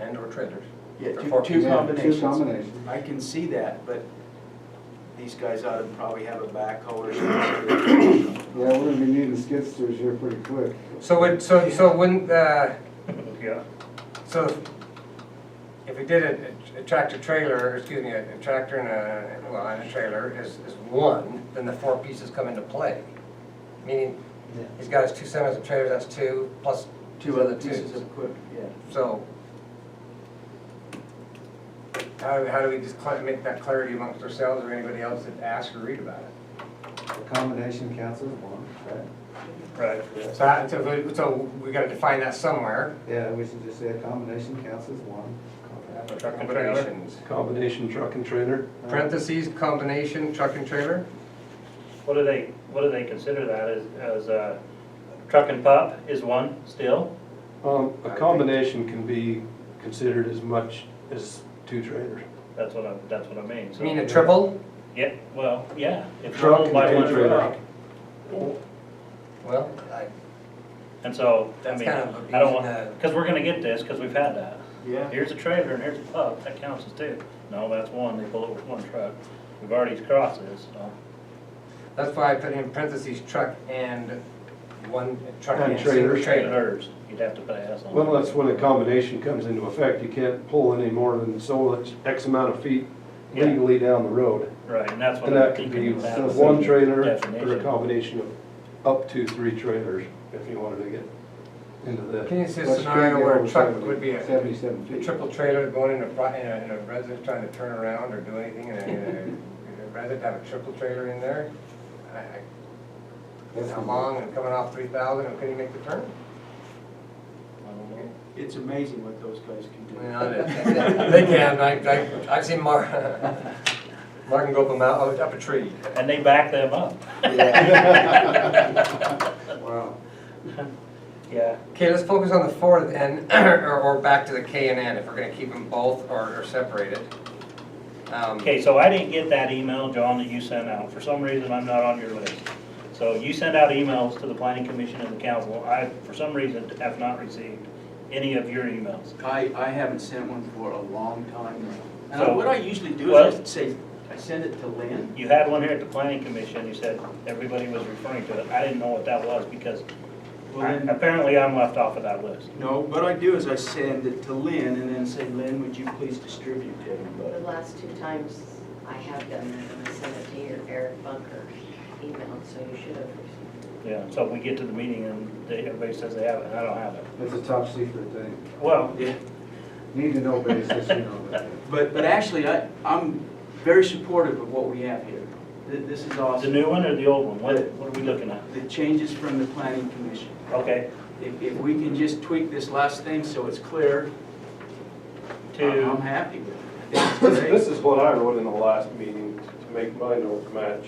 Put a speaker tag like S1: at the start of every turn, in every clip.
S1: and or trailers.
S2: Yeah,
S1: For
S2: two,
S1: four-
S2: two
S3: Yeah, Two
S2: combinations.
S3: combinations.
S2: I can see that, but these guys ought to probably have a backhoe or something.
S3: Yeah, we're gonna be needing skid steers here pretty quick.
S1: So would, so, so wouldn't, uh,
S4: Yeah.
S1: so if- if we did a- a tractor trailer, excuse me, a tractor and a, well, and a trailer is, is one, then the four pieces come into play. Meaning, he's got his two semis and trailers, that's two, plus
S2: Two other pieces of equipment, yeah.
S1: So how, how do we just cla- make that clarity amongst ourselves or anybody else that asks or read about it?
S3: The combination counts as one, right?
S4: Right.
S1: So that, so we, so we gotta define that somewhere.
S3: Yeah, we should just say a combination counts as one.
S1: Truck and trailers.
S5: Combination truck and trailer.
S1: Parentheses, combination, truck and trailer?
S4: What do they, what do they consider that as, as uh truck and pup is one still?
S5: Um, a combination can be considered as much as two trailers.
S4: That's what I, that's what I mean, so.
S1: You mean a triple?
S4: Yeah, well, yeah. if
S5: Truck
S4: owned
S5: and
S4: by
S5: two
S4: one
S5: trailer.
S4: truck.
S1: Well, I-
S4: And so, I
S1: That's
S4: mean,
S1: kind of
S4: I don't
S1: abusing
S4: want, because we're gonna get this, because we've had that.
S2: Yeah.
S4: Here's a trailer and here's a pup, that counts as two. No, that's one, they pull it with one truck. We've already crossed this, so.
S1: that's why I put in parentheses, truck and one, truck
S5: And
S1: and
S5: trailer.
S1: trailer.
S4: Trailers, you'd have to pay us on.
S5: Well, that's when a combination comes into effect. You can't pull any more than so much, X amount of feet
S4: Yeah.
S5: legally down the road.
S4: Right, and that's what
S5: And
S4: I'm
S5: that could be
S4: thinking about.
S3: so
S5: one trailer or a
S4: Definition.
S5: combination of up to three trailers, if you wanted to get into
S1: Can
S5: that.
S1: you see a
S3: But you can't
S1: scenario
S3: get
S1: where a
S3: over
S1: truck
S3: 70
S1: would be a
S3: Seventy-seven
S1: The
S3: feet.
S1: triple trailer going in a, pro- in a, in a residence trying to turn around or do anything, and a, in a resident have a triple trailer in there? I- I-
S3: That's
S1: How
S3: the-
S1: long and coming off three thousand, and couldn't he make the turn?
S4: I don't know.
S2: It's amazing what those guys can do.
S1: They can, I, I, I've seen Mark, Mark can go up a mount, up a tree.
S4: And they back them up.
S3: Wow.
S4: Yeah.
S1: Okay, let's focus on the fourth and, or, or back to the K and N, if we're gonna keep them both or, or separated. Um,
S4: Okay, so I didn't get that email, John, that you sent out. For some reason, I'm not on your list. So you sent out emails to the planning commission and the council. I, for some reason, have not received any of your emails.
S2: I, I haven't sent one for a long time now. And I-
S4: So-
S2: what I usually do
S4: Well-
S2: is I say, I send it to Lynn.
S4: You had one here at the planning commission, you said everybody was referring to it. I didn't know what that was because
S2: Well,
S4: I-
S2: then-
S4: apparently I'm left off of that list.
S2: No, what I do is I send it to Lynn and then say, Lynn, would you please distribute to
S6: The
S2: everybody?
S6: last two times I have done that, I sent it to your Eric Bunker email, so you should have received
S4: Yeah, so we get to the meeting and they, everybody says they have it, and I don't have it.
S3: It's a top secret thing.
S4: Well,
S2: Yeah,
S3: Need to know basis, you know, but
S2: But, but actually, I, I'm very supportive of what we have here. Th- This is
S4: the
S2: awesome.
S4: new one or the old one? What, what are we looking at?
S2: The changes from the planning commission.
S4: Okay,
S2: If, if we can just tweak this last thing so it's clear, I-
S4: to.
S2: I'm happy with it. I think
S5: This,
S2: it's great.
S5: this is what I wrote in the last meeting to make mine don't match.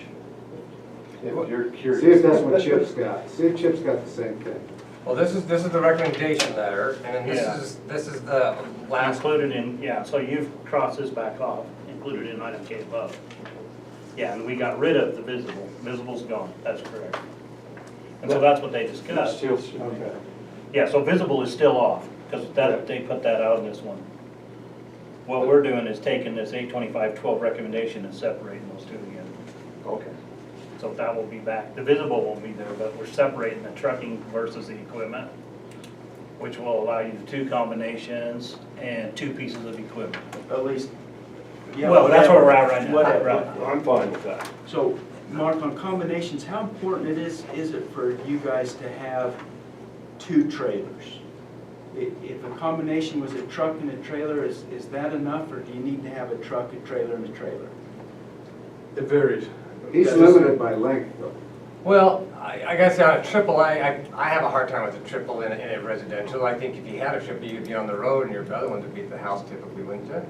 S5: If you're curious.
S3: See if that's what Chip's got. See if Chip's got the same thing.
S1: Well, this is, this is the recommendation letter, and then this
S4: Yeah.
S1: is, this is the last
S4: Included in, yeah, so you've crossed this back off, included in item K above. Yeah, and we got rid of the visible, visible's gone, that's correct. And so that's what they
S5: It
S4: discussed.
S5: still should be.
S3: Okay.
S4: Yeah, so visible is still off, because that, they put that out in this one. What we're doing is taking this eight twenty-five twelve recommendation and separating those two again.
S5: Okay.
S4: So that will be back, the visible won't be there, but we're separating the trucking versus the equipment, which will allow you the two combinations and two pieces of equipment.
S2: At least. yeah,
S4: Well, that's
S2: whatever.
S4: where we're at right now.
S2: Whatever.
S4: Right.
S5: I'm fine with that.
S2: So, Mark, on combinations, how important it is, is it for you guys to have two trailers? I- If a combination was a truck and a trailer, is, is that enough, or do you need to have a truck, a trailer, and a trailer?
S5: It varies.
S3: He's limited by length, though.
S1: Well, I, I gotta say, on a triple, I, I, I have a hard time with a triple in a, in a residential. I think if you had a triple, you'd be on the road and your other ones would be at the house typically, wouldn't you?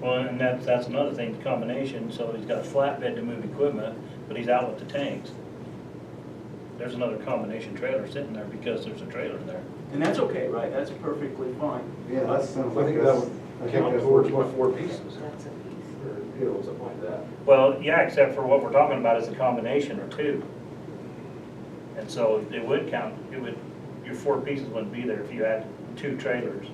S4: Well, and that's, that's another thing, the combination, so he's got a flatbed to move equipment, but he's out with the tanks. There's another combination trailer sitting there because there's a trailer there.
S2: And that's okay, right? That's perfectly fine.
S3: Yeah, that sounds
S5: I
S3: like
S5: think that
S3: that's.
S5: would
S3: I think
S5: count
S3: that's
S5: towards
S3: what-
S5: my four pieces,
S6: it. That's a piece.
S5: or, you know, something like that.
S4: Well, yeah, except for what we're talking about is a combination or two. And so it would count, it would, your four pieces wouldn't be there if you had two trailers.